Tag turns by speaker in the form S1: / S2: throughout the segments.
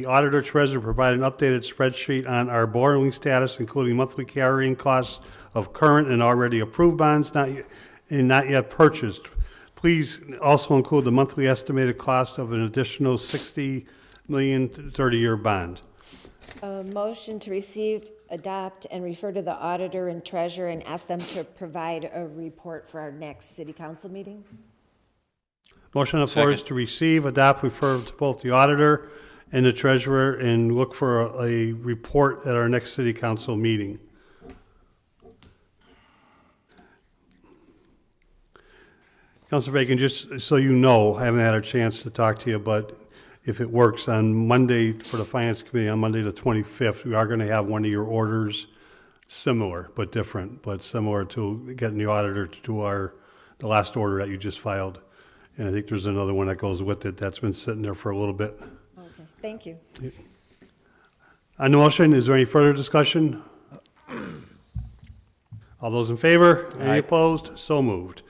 S1: The auditor treasurer provide an updated spreadsheet on our borrowing status, including monthly carrying costs of current and already approved bonds not, yet- and not yet purchased. Please also include the monthly estimated cost of an additional sixty million thirty-year bond.
S2: A motion to receive, adopt, and refer to the auditor and treasurer and ask them to provide a report for our next city council meeting?
S1: Motion on the floor is to receive, adopt, refer to both the auditor and the treasurer, and look for a, a report at our next city council meeting. Councilor Bacon, just so you know, I haven't had a chance to talk to you, but if it works, on Monday, for the Finance Committee, on Monday the 25th, we are going to have one of your orders similar, but different, but similar to getting the auditor to do our, the last order that you just filed. And I think there's another one that goes with it that's been sitting there for a little bit.
S2: Okay, thank you.
S1: On the motion, is there any further discussion? All those in favor? Any opposed? So moved.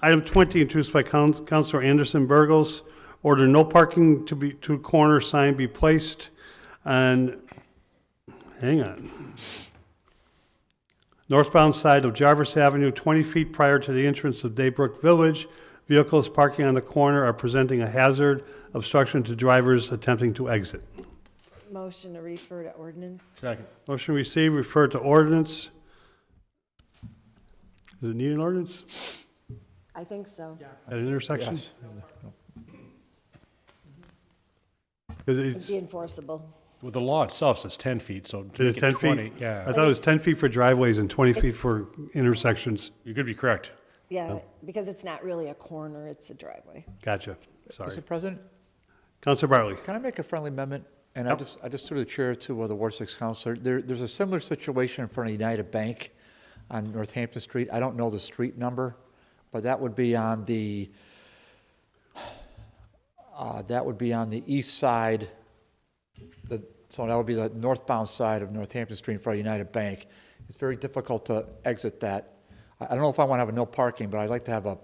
S1: Item 20, introduced by Coun- Counselor Anderson Burgos, order no parking to be, to corner sign be placed on, hang on, northbound side of Jarvis Avenue, 20 feet prior to the entrance of Daybrook Village. Vehicles parking on the corner are presenting a hazard obstruction to drivers attempting to exit.
S2: Motion to refer to ordinance?
S3: Second.
S1: Motion received, refer to ordinance. Does it need an ordinance
S2: I think so.
S1: at an intersection?
S3: Yes.
S1: 'Cause
S2: It'd
S1: it's-
S2: be enforceable.
S3: Well, the law itself says 10 feet, so to
S1: Is it
S3: make
S1: 10
S3: it
S1: feet?
S3: 20,
S1: I
S3: yeah,
S1: thought it was 10 feet for driveways and 20 feet
S2: It's-
S1: for intersections.
S3: you could be correct.
S2: Yeah, because it's not really a corner, it's a driveway.
S1: Gotcha, sorry.
S4: Mr. President,
S1: Counselor Bartley,
S4: can I make a friendly amendment? And I just, I just threw the chair to uh, the Ward Six Counselor. There, there's a similar situation in front of United Bank on Northampton Street. I don't know the street number, but that would be on the, uh, that would be on the east side. The, so that would be the northbound side of Northampton Street in front of United Bank. It's very difficult to exit that. I, I don't know if I want to have a no parking, but I'd like to have a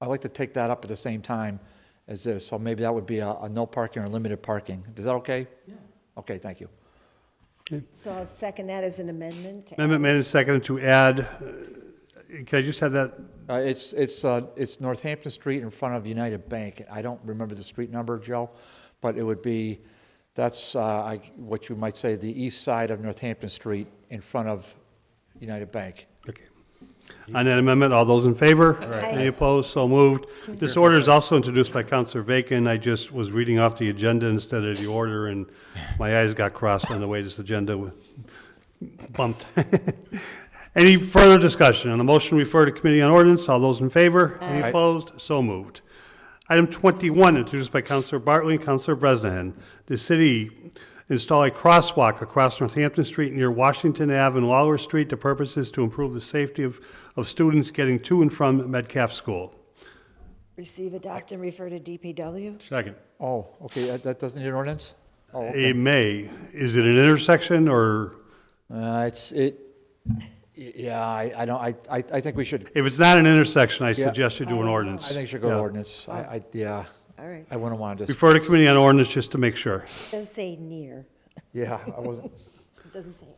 S4: I'd like to take that up at the same time as this, so maybe that would be a, a no parking or limited parking. Is that okay? Yeah. Okay, thank you.
S2: So I'll second that as an amendment.
S1: amendment made and seconded to add, uh, can I just have that,
S4: Uh, it's, it's, uh, it's Northampton Street in front of United Bank. I don't remember the street number, Joe, but it would be, that's, uh, I, what you might say, the east side of Northampton Street in front of United Bank.
S1: okay. On that amendment, all those in favor?
S2: Aye.
S1: Any opposed? So moved. This order is also introduced by Counselor Bacon. I just was reading off the agenda instead of the order, and my eyes got crossed on the way this agenda was bumped. Any further discussion? On the motion, refer to Committee on Ordinance. All those in favor? Any
S4: Aye.
S1: opposed? So moved. Item 21, introduced by Counselor Bartley and Counselor Bresnahan. The city install a crosswalk across Northampton Street near Washington Ave and Lawler Street. The purpose is to improve the safety of, of students getting to and from Metcalf School.
S2: Receive, adopt, and refer to DPW?
S3: Second.
S4: Oh, okay, that, that doesn't need an ordinance? Oh,
S1: A
S4: okay.
S1: may, is it an intersection or,
S4: Uh, it's, it, y- yeah, I, I don't, I, I, I think we should
S1: if it's not an intersection, I
S4: Yeah.
S1: suggest you do an ordinance.
S4: I think it should go to
S1: Yeah.
S4: ordinance. I, I, yeah,
S2: All right.
S4: I wouldn't want to just,
S1: Refer to Committee on Ordinance just to make sure.
S2: It doesn't say near,
S4: yeah, I wasn't.
S2: it doesn't say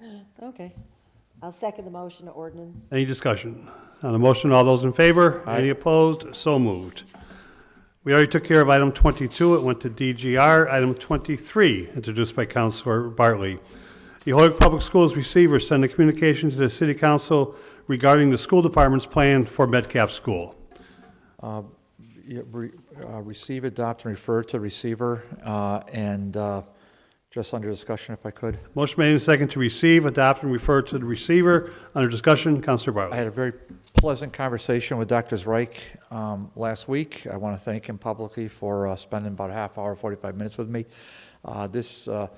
S2: at. Okay. I'll second the motion to ordinance.
S1: Any discussion? On the motion, all those in favor?
S4: Aye.
S1: Any opposed? So moved. We already took care of item 22, it went to DGR. Item 23, introduced by Counselor Bartley. The Hoyok Public Schools receiver sent a communication to the city council regarding the school department's plan for Metcalf School.
S4: Yeah, re- uh, Receive, adopt, and refer to receiver, uh, and uh, just under discussion if I could.
S1: Motion made and second to receive, adopt, and refer to the receiver. Under discussion, Counselor
S4: I
S1: Bartley.
S4: had a very pleasant conversation with Dr. Reich um, last week. I want to thank him publicly for uh, spending about a half hour, 45 minutes with me. Uh, This, uh,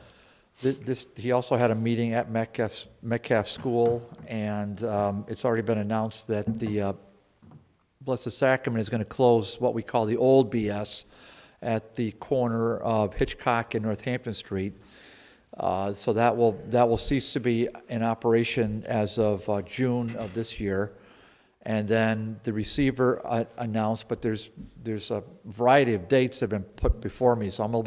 S4: thi- this, he also had a meeting at Metcalf, Metcalf School, and um, it's already been announced that the uh, Blessed Sacrament is going to close what we call the old BS at the corner of Hitchcock and Northampton Street. Uh, So that will, that will cease to be in operation as of uh, June of this year. And then the receiver uh, announced, but there's, there's a variety of dates that have been put before me, so I'm a little